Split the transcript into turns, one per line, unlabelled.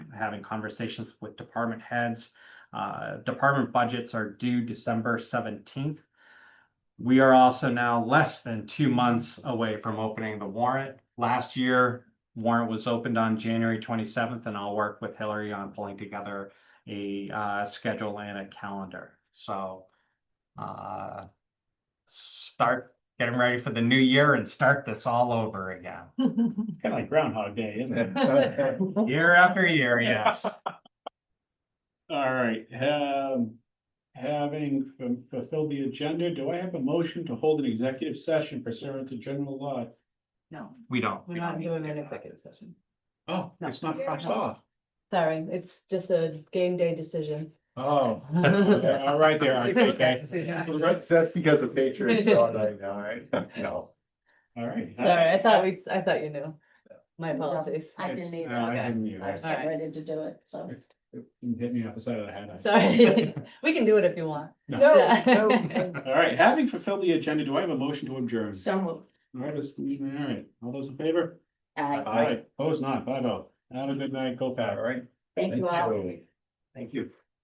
having conversations with department heads. Uh, department budgets are due December seventeenth. We are also now less than two months away from opening the warrant. Last year, warrant was opened on January twenty-seventh, and I'll work with Hillary on pulling together a, uh, schedule and a calendar. So, uh, start, get them ready for the new year and start this all over again.
Kind of like Groundhog Day, isn't it?
Year after year, yes.
All right, um, having fu- fulfilled the agenda, do I have a motion to hold an executive session pursuant to general law?
No,
We don't.
we're not doing an executive session.
Oh, it's not crossed off.
Sorry, it's just a game day decision.
Oh, yeah, all right there, I think, I-
That's, that's because the Patriots are on right now, right? No.
all right.
Sorry, I thought we, I thought you knew. My apologies.
I
It's-
didn't either.
no, I
Okay.
didn't either.
I was getting ready to do it, so.
It Hit me off the side of the head. I-
Sorry, we can do it if you want.
No, no,
All right, having fulfilled the agenda, do I have a motion to adjourn?
So moved.
All right, let's- all right, all those in favor?
Aye.
All right, Opposed, not, five oh. Have a good night, go Pat. All right.
Thank you all.
Thank you.